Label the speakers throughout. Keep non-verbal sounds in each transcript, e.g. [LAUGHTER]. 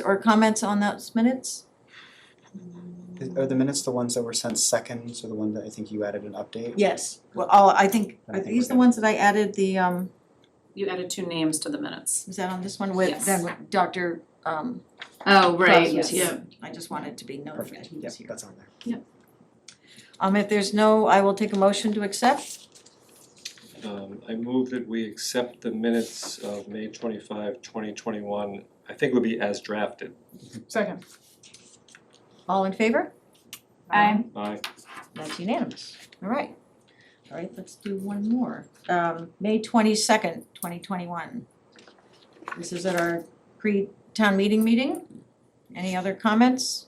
Speaker 1: or comments on those minutes?
Speaker 2: Is- Are the minutes the ones that were sent second, so the one that I think you added an update?
Speaker 1: Yes, well, I'll- I think,
Speaker 2: I
Speaker 1: are
Speaker 2: think we're
Speaker 1: these the
Speaker 2: good.
Speaker 1: ones that I added the, um,
Speaker 3: You added two names to the minutes.
Speaker 1: was that on this one with,
Speaker 3: Yes.
Speaker 1: then with Dr., um,
Speaker 3: Oh,
Speaker 1: right,
Speaker 3: Yes.
Speaker 1: yeah. I just wanted to be notified
Speaker 2: Perfect,
Speaker 1: he
Speaker 2: yep,
Speaker 1: was here.
Speaker 2: that's on there.
Speaker 1: Um, if there's no, I will take a motion to accept.
Speaker 4: Um I move that we accept the minutes of May 25, 2021. I think it would be as drafted.
Speaker 5: Second.
Speaker 1: All in favor?
Speaker 5: Aye.
Speaker 4: Aye.
Speaker 1: That's unanimous. All right. All right, let's do one more. Um, May twenty-second, twenty twenty-one. This is at our pre-town meeting meeting. Any other comments?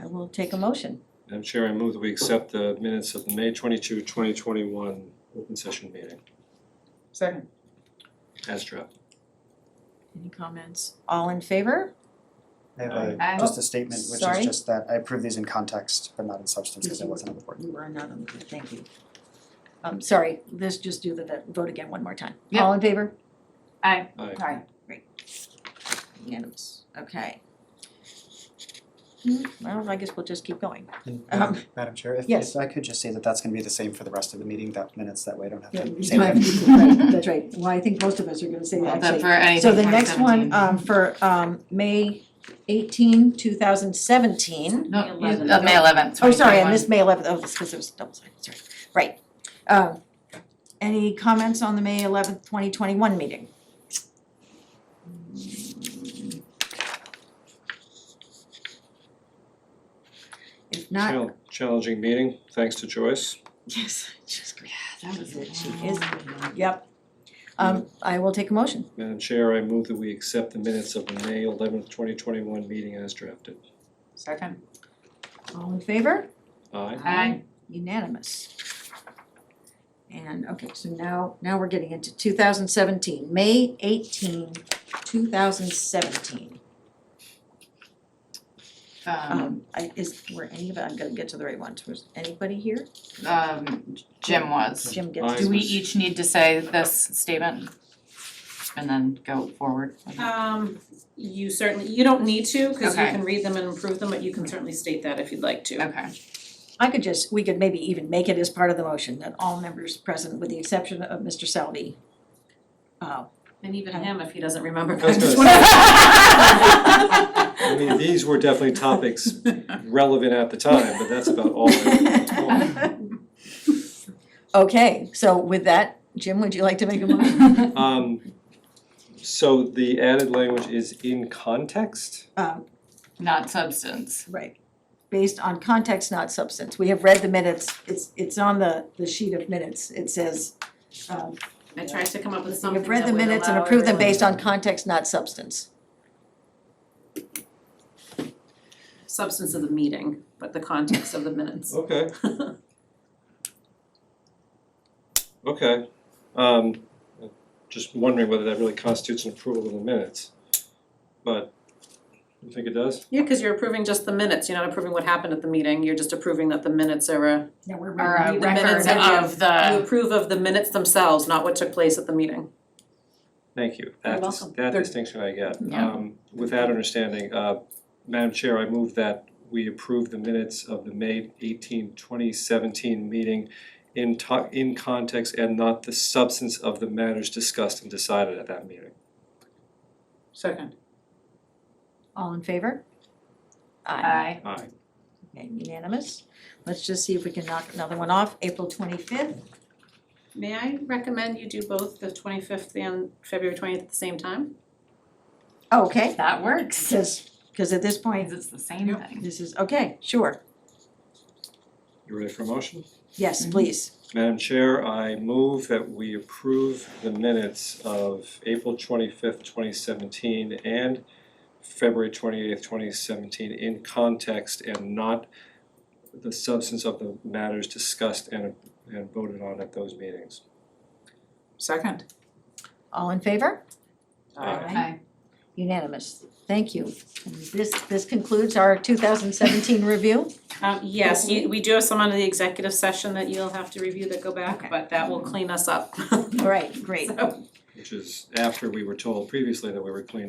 Speaker 1: I will take a motion.
Speaker 4: Madam Chair, I move that we accept the minutes of the May 22, 2021 open session meeting
Speaker 5: Second.
Speaker 4: as drafted.
Speaker 1: Any comments? All in favor?
Speaker 2: I have
Speaker 5: Aye.
Speaker 2: a, just a statement, which
Speaker 1: Sorry.
Speaker 2: is just that I approve these in context, but not in substance, because I wasn't on the board.
Speaker 1: You are not on the board, thank you. Um, sorry, let's just do the- the vote again one more time.
Speaker 5: Yeah.
Speaker 1: All in favor?
Speaker 4: Aye.
Speaker 5: Aye.
Speaker 1: Unanimous, okay. Hmm, Well, I guess we'll just keep going.
Speaker 2: And
Speaker 1: Um,
Speaker 2: Madam- Madam Chair, if
Speaker 1: yes.
Speaker 2: if I could just say that that's gonna be the same for the rest of the meeting, that minutes, that way I don't have to say.
Speaker 1: Right,
Speaker 2: that.
Speaker 1: [LAUGHS] That's right, well, I think most of us are gonna say that,
Speaker 3: But
Speaker 1: actually.
Speaker 3: for anything
Speaker 1: So the next one,
Speaker 3: 2017.
Speaker 1: um, for, um, May eighteen, two thousand seventeen.
Speaker 3: No,
Speaker 5: May
Speaker 3: you-
Speaker 5: 11th.
Speaker 3: uh, May eleventh,
Speaker 1: Oh, sorry, I missed May eleventh, oh, that's because it was double sided, sorry, right. Um, any comments on the May eleventh, twenty twenty-one meeting? If not,
Speaker 4: Chal- Challenging meeting, thanks to Joyce.
Speaker 1: yes, just great,
Speaker 3: That was
Speaker 1: it. She is- yep. Um, I will take a motion.
Speaker 4: Madam Chair, I move that we accept the minutes of the May eleventh, twenty twenty-one meeting as drafted.
Speaker 5: Second.
Speaker 1: All in favor?
Speaker 4: Aye.
Speaker 5: Aye.
Speaker 1: Unanimous. And, okay, so now, now we're getting into two thousand seventeen, May 18, 2017.
Speaker 3: Um, Uh-huh.
Speaker 1: Um, I, is, were any of, I'm gonna get to the right ones, was anybody here?
Speaker 3: um, Jim was.
Speaker 1: Jim gets,
Speaker 4: Aye.
Speaker 3: Do we each need to say this statement? And then go forward?
Speaker 1: Uh,
Speaker 6: Um, you certainly, you don't need to, cause you
Speaker 3: Okay.
Speaker 6: can read them and improve them, but you can certainly state that if you'd like to.
Speaker 3: Okay,
Speaker 1: I could just, we could maybe even make it as part of the motion, that all members present, with the exception of Mr. Selby. Uh,
Speaker 6: And even him, if he doesn't remember.
Speaker 4: I
Speaker 6: [LAUGHS]
Speaker 4: was
Speaker 6: I'm just
Speaker 4: gonna say.
Speaker 1: [LAUGHS]
Speaker 6: wondering.
Speaker 1: Oh.
Speaker 4: I mean, these were definitely topics [LAUGHS] relevant at the time, but that's about all I
Speaker 1: Okay, so with that, Jim, would you like to make a motion?
Speaker 4: [LAUGHS] Um, so the added language is in context?
Speaker 1: Um,
Speaker 3: not substance.
Speaker 1: Right, based on context, not substance. We have read the minutes, it's, it's on the, the sheet of minutes. It says, um,
Speaker 6: I tried to come up with
Speaker 1: we
Speaker 6: something
Speaker 1: have
Speaker 6: that
Speaker 1: read the
Speaker 6: would
Speaker 1: minutes and
Speaker 6: allow
Speaker 1: approved them
Speaker 6: everyone-
Speaker 1: based on context, not substance.
Speaker 6: Substance of the meeting, but the context of the minutes.
Speaker 4: [LAUGHS] Okay. Okay, um, just wondering whether that really constitutes an approval of the minutes. But, you think it does?
Speaker 6: Yeah, cause you're approving just the minutes, you're not approving what happened at the meeting, you're just approving that the minutes are a,
Speaker 1: Now, we're
Speaker 3: Or a
Speaker 6: the
Speaker 3: record
Speaker 6: minutes of-
Speaker 3: of
Speaker 6: you
Speaker 3: the,
Speaker 6: approve of the minutes themselves, not what took place at the meeting.
Speaker 4: Thank you, that
Speaker 6: You're
Speaker 4: dis-
Speaker 6: welcome.
Speaker 4: that
Speaker 6: They're-
Speaker 4: distinction I get.
Speaker 3: Yeah.
Speaker 4: Um, with that understanding, uh, Madam Chair, I move that we approve the minutes of the May 18, 2017 meeting in to- in context and not the substance of the matters discussed and decided at that meeting.
Speaker 5: Second.
Speaker 1: All in favor?
Speaker 3: aye,
Speaker 4: Aye.
Speaker 1: Okay, unanimous. Let's just see if we can knock another one off. April twenty-fifth,
Speaker 6: May I recommend you do both the twenty-fifth and February twentieth at the same time?
Speaker 1: okay,
Speaker 3: that works,
Speaker 1: because, because at this
Speaker 3: because
Speaker 1: point,
Speaker 3: it's the same thing.
Speaker 1: this is, okay, sure,
Speaker 4: You ready for a motion?
Speaker 1: yes,
Speaker 6: Mm-hmm.
Speaker 1: please.
Speaker 4: Madam Chair, I move that we approve the minutes of April twenty-fifth, twenty seventeen and February twenty-eighth, twenty seventeen in context and not the substance of the matters discussed and and voted on at those meetings.
Speaker 5: Second.
Speaker 1: All in favor?
Speaker 4: Aye.
Speaker 3: Aye.
Speaker 1: Unanimous, thank you. And This, this concludes our two thousand seventeen review.
Speaker 6: Um, yes, you, we do have some on the executive session that you'll have to review that go
Speaker 1: Okay.
Speaker 6: [LAUGHS] back, but that will clean us up.
Speaker 1: All right, great.
Speaker 6: So,
Speaker 4: which is after we were told previously that we were clean